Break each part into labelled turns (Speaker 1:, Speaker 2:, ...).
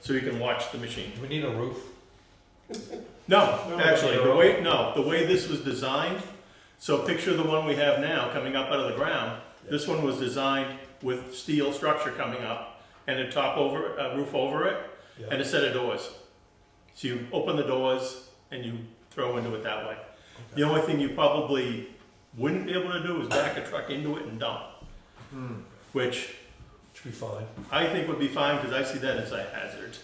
Speaker 1: so you can watch the machine.
Speaker 2: Do we need a roof?
Speaker 1: No,
Speaker 3: No,
Speaker 1: actually,
Speaker 3: no.
Speaker 1: the way, no, the way this was designed, so picture the one we have now coming up out of the ground. This one was designed with steel structure coming up and a top over, a roof over it and a set of doors. So you open the doors and you throw into it that way. The only thing you probably wouldn't be able to do is back a truck into it and dump.
Speaker 3: Hmm.
Speaker 1: Which
Speaker 2: Should be fine.
Speaker 4: Mm-hmm.
Speaker 1: I think would be fine because I see that as a hazard.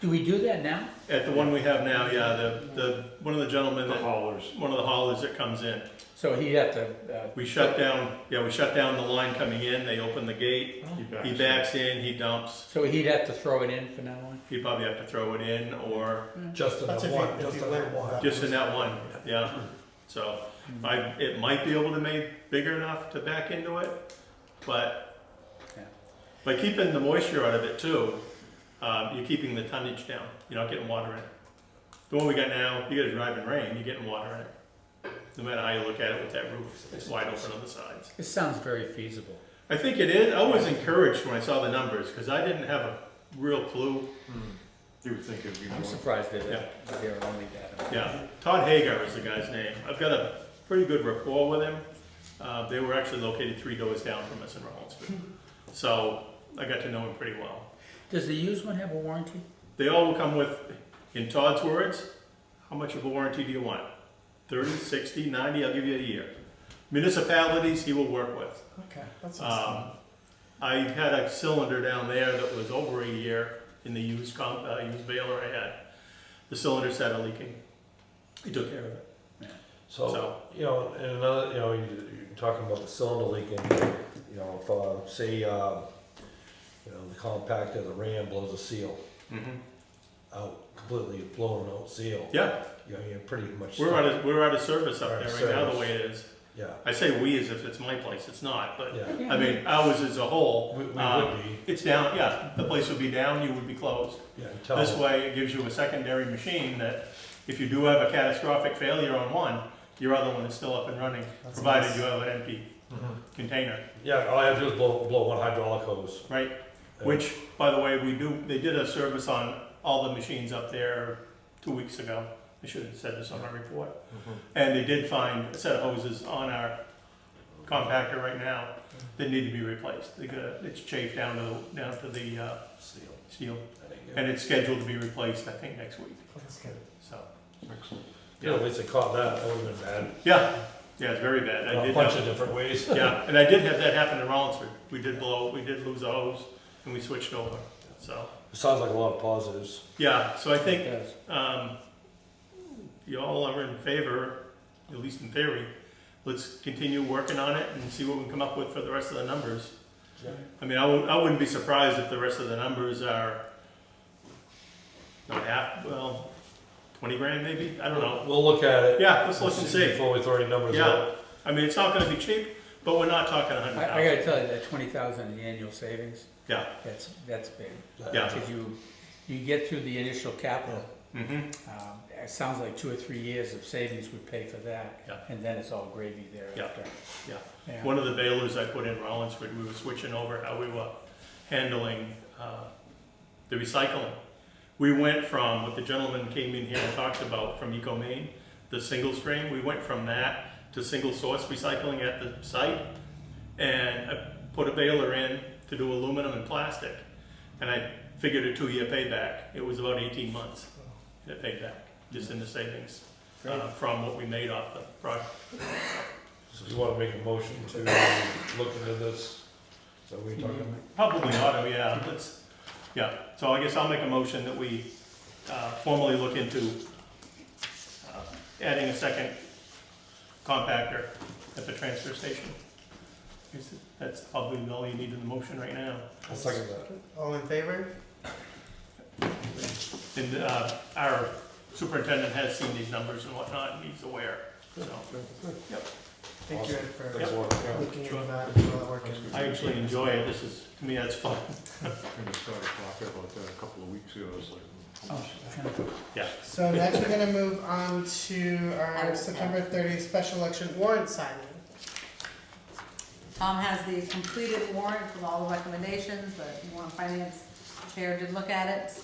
Speaker 5: Do we do that now?
Speaker 1: At the one we have now, yeah, the, the, one of the gentlemen
Speaker 3: The
Speaker 1: that
Speaker 3: haulers.
Speaker 1: one of the haulers that comes in.
Speaker 5: So he'd have to, uh,
Speaker 1: We shut down, yeah, we shut down the line coming in, they open the gate, he backs in, he dumps.
Speaker 5: so he'd have to throw it in for now on?
Speaker 1: He'd probably have to throw it in or
Speaker 2: Just in
Speaker 4: That's
Speaker 2: that
Speaker 4: if you-
Speaker 2: one,
Speaker 4: if
Speaker 2: just
Speaker 4: you
Speaker 2: in
Speaker 4: let
Speaker 2: that
Speaker 4: it
Speaker 2: one.
Speaker 4: walk.
Speaker 1: just in that one, yeah. So I, it might be able to make bigger enough to back into it, but
Speaker 5: Yeah.
Speaker 1: by keeping the moisture out of it too, um, you're keeping the tonnage down, you're not getting water in it. The one we got now, you got a driving rain, you're getting water in it. No matter how you look at it with that roof, it's wide open on the sides.
Speaker 5: This sounds very feasible.
Speaker 1: I think it is. I was encouraged when I saw the numbers because I didn't have a real clue.
Speaker 3: You would think it'd be more.
Speaker 5: I'm surprised that
Speaker 1: Yeah.
Speaker 5: it- that they're only that.
Speaker 1: Yeah, Todd Hagar is the guy's name. I've got a pretty good rapport with him. Uh, they were actually located three doors down from us in Rollinsford, so I got to know him pretty well.
Speaker 5: Does the used one have a warranty?
Speaker 1: They all will come with, in Todd's words, how much of a warranty do you want? 30, 60, 90, I'll give you a year. Municipalities he will work with.
Speaker 4: Okay, that's
Speaker 1: Um,
Speaker 4: awesome.
Speaker 1: I had a cylinder down there that was over a year in the used comp, uh, used baler I had. The cylinder started leaking. He took care of it.
Speaker 2: So,
Speaker 1: So-
Speaker 2: you know, and another, you know, you- you're talking about the cylinder leaking, you know, if, uh, say, um, you know, the compact of the ram blows a seal Mm-hmm. out, completely blown out seal.
Speaker 1: Yeah,
Speaker 2: You know, you're pretty much.
Speaker 1: we're out of, we're out of service
Speaker 2: We're
Speaker 1: up
Speaker 2: out
Speaker 1: there
Speaker 2: of
Speaker 1: right now, the
Speaker 2: service.
Speaker 1: way it is.
Speaker 2: Yeah,
Speaker 1: I say we as if it's my place, it's not, but,
Speaker 2: yeah.
Speaker 1: I mean, ours as a whole.
Speaker 2: We, we
Speaker 1: um,
Speaker 2: would be,
Speaker 1: It's down, yeah, the place would be down, you would be closed.
Speaker 2: yeah, tell
Speaker 1: This
Speaker 2: them,
Speaker 1: way, it gives you a secondary machine that if you do have a catastrophic failure on one, your other one is still up and running,
Speaker 4: That's
Speaker 1: provided
Speaker 4: nice.
Speaker 1: you have an empty
Speaker 4: Uh-huh.
Speaker 1: container,
Speaker 2: yeah, all I have to do is blow, blow one hydraulic hose.
Speaker 1: right?
Speaker 2: uh,
Speaker 1: Which, by the way, we do, they did a service on all the machines up there two weeks ago. I should have said this on my report.
Speaker 4: Mm-hmm.
Speaker 1: And they did find a set of hoses on our compactor right now
Speaker 4: Mm-hmm.
Speaker 1: that need to be replaced. They got, it's chafed down to, down to the uh,
Speaker 2: Seal,
Speaker 1: steel.
Speaker 2: I think, yeah.
Speaker 1: And it's scheduled to be replaced, I think, next week,
Speaker 4: That's good.
Speaker 1: so.
Speaker 3: Excellent.
Speaker 2: Yeah, at least they caught that, that would've been bad,
Speaker 1: Yeah, yeah, it's very bad. I
Speaker 2: a
Speaker 1: did
Speaker 2: bunch
Speaker 1: have,
Speaker 2: of different ways.
Speaker 1: yeah, and I did have that happen in Rollinsford. We did blow, we did lose a hose and we switched over, so.
Speaker 2: Sounds like a lot of positives.
Speaker 1: Yeah, so I think
Speaker 5: It does.
Speaker 1: Um, y'all are in favor, at least in theory, let's continue working on it and see what we can come up with for the rest of the numbers.
Speaker 2: Yeah.
Speaker 1: I mean, I wouldn't, I wouldn't be surprised if the rest of the numbers are not half, well, twenty grand maybe, I don't know.
Speaker 2: We'll look at it.
Speaker 1: Yeah, let's look and see.
Speaker 2: Before we throw any numbers
Speaker 1: Yeah,
Speaker 2: out.
Speaker 1: I mean, it's not gonna be cheap, but we're not talking a
Speaker 5: I,
Speaker 1: hundred
Speaker 5: I
Speaker 1: thousand.
Speaker 5: gotta tell you, that twenty thousand in the annual savings,
Speaker 1: Yeah,
Speaker 5: that's, that's big.
Speaker 1: Yeah.
Speaker 5: Because you, you get through the initial capital,
Speaker 1: mm-hmm,
Speaker 5: um, it sounds like two or three years of savings would pay for that.
Speaker 1: Yeah.
Speaker 5: And then it's all gravy
Speaker 1: Yeah.
Speaker 5: thereafter.
Speaker 1: yeah.
Speaker 5: Yeah.
Speaker 1: One of the bailers I put in Rollinsford, we were switching over how we were handling uh, the recycling. We went from, what the gentleman came in here and talked about from Eco Maine, the single stream, we went from that to single source recycling at the site. And I put a baler in to do aluminum and plastic. And I figured a two-year payback. It was about 18 months that paid back, just in the savings uh, from what we made off the project.
Speaker 2: So you wanna make a motion to look into this? So we talking about?
Speaker 1: Probably auto, yeah, let's, yeah, so I guess I'll make a motion that we uh, formally look into uh, adding a second compactor at the transfer station. Is it- That's probably all you need in the motion right now.
Speaker 2: I'll second that.
Speaker 4: All in favor?
Speaker 1: And uh, our superintendent has seen these numbers and whatnot, and he's aware, so.
Speaker 4: Thank you Ed, for
Speaker 2: Thanks, Warren. Yeah.
Speaker 4: looking into
Speaker 1: Sure.
Speaker 4: that and all that work. and-
Speaker 1: I actually enjoy it, this is, to me, that's fun.
Speaker 3: Kind of started talking about that a couple of weeks ago, I was like.
Speaker 5: Oh, okay.
Speaker 4: So next we're gonna move on to our uh, September thirtieth special election warrant signing.
Speaker 6: Tom has the completed warrant with all the recommendations, the warrant finance chair did look at it.